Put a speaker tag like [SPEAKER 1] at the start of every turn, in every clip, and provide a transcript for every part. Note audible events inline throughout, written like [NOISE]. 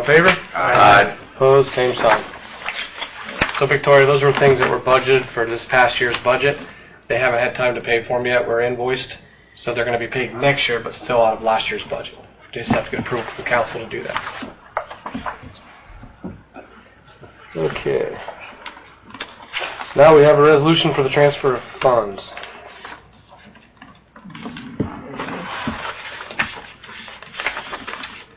[SPEAKER 1] in favor?
[SPEAKER 2] Aye.
[SPEAKER 1] Opposed, same sign. So Victoria, those were things that were budgeted for this past year's budget. They haven't had time to pay for them yet, we're invoiced, so they're going to be paid next year, but still out of last year's budget. Just have to get approval from council to do that. Okay. Now we have a resolution for the transfer of funds.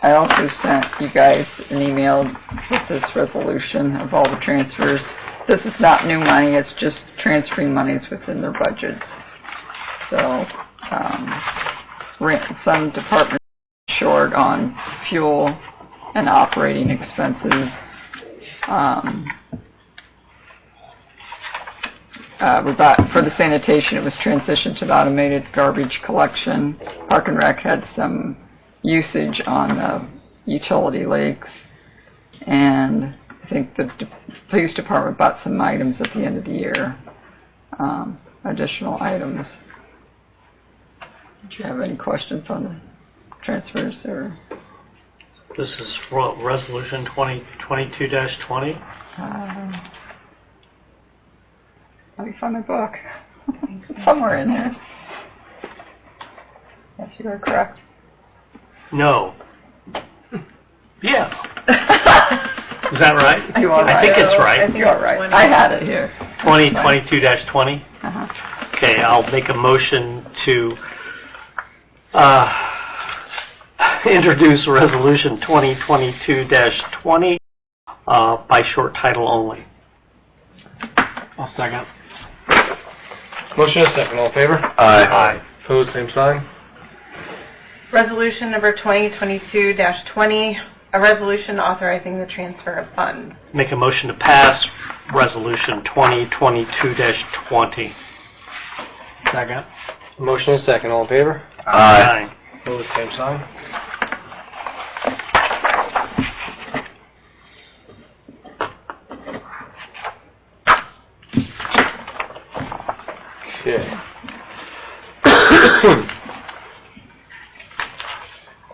[SPEAKER 3] I also sent you guys an email with this resolution of all the transfers. This is not new money, it's just transferring monies within their budgets. So, um, rent, some departments short on fuel and operating expenses. Um, uh, we bought, for the sanitation, it was transitioned to the automated garbage collection. Park and Rec had some usage on the utility lakes. And I think the d- police department bought some items at the end of the year, um, additional items. Do you have any questions on the transfers or,
[SPEAKER 1] This is Resolution 2022-20?
[SPEAKER 3] um, let me find my book. Somewhere in there. Yes, you are
[SPEAKER 1] [LAUGHS]
[SPEAKER 3] correct.
[SPEAKER 1] No. Yeah. Is that right?
[SPEAKER 3] You are
[SPEAKER 1] I
[SPEAKER 3] right.
[SPEAKER 1] think it's right.
[SPEAKER 3] You are right. I had it here.
[SPEAKER 1] 2022-20?
[SPEAKER 3] Uh-huh.
[SPEAKER 1] Okay, I'll make a motion to uh, [LAUGHS] introduce Resolution 2022-20 uh, by short title only. I'll second. Motion is second, all in favor?
[SPEAKER 2] Aye.
[SPEAKER 1] Opposed, same sign.
[SPEAKER 4] Resolution number 2022-20, a resolution authorizing the transfer of funds.
[SPEAKER 1] Make a motion to pass Resolution 2022-20. Second. Motion is second, all in favor?
[SPEAKER 2] Aye.
[SPEAKER 1] Opposed, same sign. Okay. [COUGHS]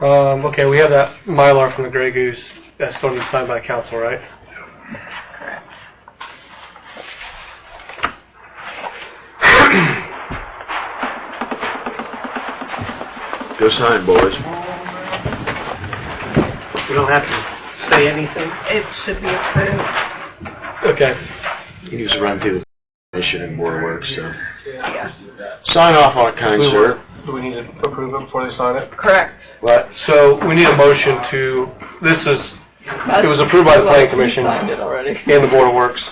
[SPEAKER 1] Um, okay, we have that Mylar from the Grey Goose that's going to be signed by council, right?
[SPEAKER 2] Go sign, boys.
[SPEAKER 1] We don't have to say anything?
[SPEAKER 4] It should be approved.
[SPEAKER 1] Okay.
[SPEAKER 2] You used to run through the mission and board work, so. Sign off on it, kind sir.
[SPEAKER 1] Do we need to approve it before they sign it?
[SPEAKER 4] Correct.
[SPEAKER 2] What?
[SPEAKER 1] So we need a motion to, this is, it was approved by the planning commission.
[SPEAKER 3] You signed it already.
[SPEAKER 4] Mm-hmm.
[SPEAKER 1] and the Board of Works.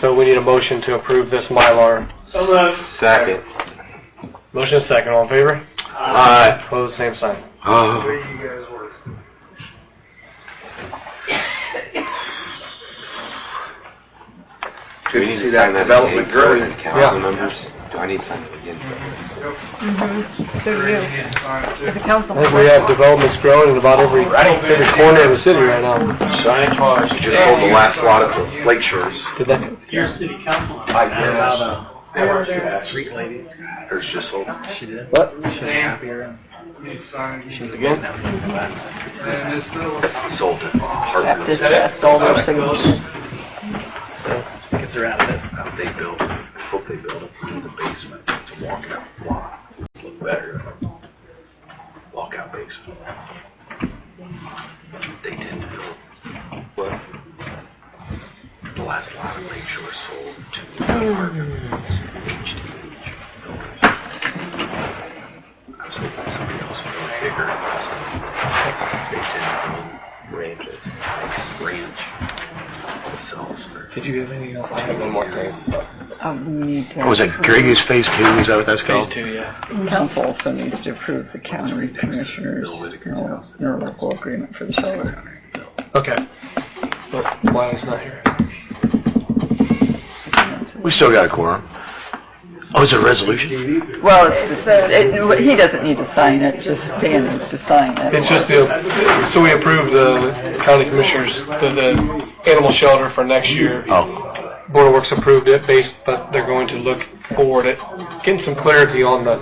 [SPEAKER 1] So we need a motion to approve this Mylar.
[SPEAKER 2] Second.
[SPEAKER 1] Motion is second, all in favor?
[SPEAKER 2] Aye.
[SPEAKER 1] Opposed, same sign.
[SPEAKER 2] Oh,
[SPEAKER 5] Do we need to sign that development growing in council
[SPEAKER 1] Yeah.
[SPEAKER 5] members? Do I need to sign it again?
[SPEAKER 4] So do you. As a
[SPEAKER 1] I
[SPEAKER 4] council
[SPEAKER 1] think we have developments growing in about every, every corner of the city right now.
[SPEAKER 2] sign it, Mars.
[SPEAKER 5] You just sold the last lot of the lake shores.
[SPEAKER 1] Did that,
[SPEAKER 2] Your city council.
[SPEAKER 5] I guess.
[SPEAKER 2] That works, yeah. Street lady.
[SPEAKER 5] There's just a whole
[SPEAKER 2] She did.
[SPEAKER 1] what?
[SPEAKER 2] Again?
[SPEAKER 5] sold it.
[SPEAKER 3] That
[SPEAKER 5] Hartman.
[SPEAKER 3] distress, all those things.
[SPEAKER 2] Get her out of it.
[SPEAKER 5] They built, I hope they build it in the basement to walk out lot. Look better. Walk out basement. They tend to build. What? The last lot of lake shore sold to apartments, H D H builders. I was hoping somebody else would build bigger. They tend to build ranches, like ranch themselves. They're
[SPEAKER 1] Did you have uh, anything else? I have one more thing.
[SPEAKER 3] Oh, we need to.
[SPEAKER 2] Was it Greggy's Phase Two? Is that what that's
[SPEAKER 1] Phase
[SPEAKER 2] called?
[SPEAKER 1] two, yeah.
[SPEAKER 3] Council also needs to approve the county commissioners' interlocal agreement for the solar.
[SPEAKER 1] Okay. But Wiley's not here.
[SPEAKER 2] We still got a quorum. Oh, it's a resolution?
[SPEAKER 3] Well, it's just- it- he doesn't need to sign it, just Dan needs to sign it.
[SPEAKER 1] It's just the, so we approved the county commissioners, the, the animal shelter for next year.
[SPEAKER 2] Oh,
[SPEAKER 1] Board of Works approved it based, but they're going to look forward at getting some clarity on the,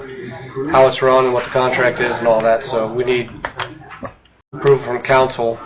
[SPEAKER 1] how it's run and what the contract is and all that, so we need approval from council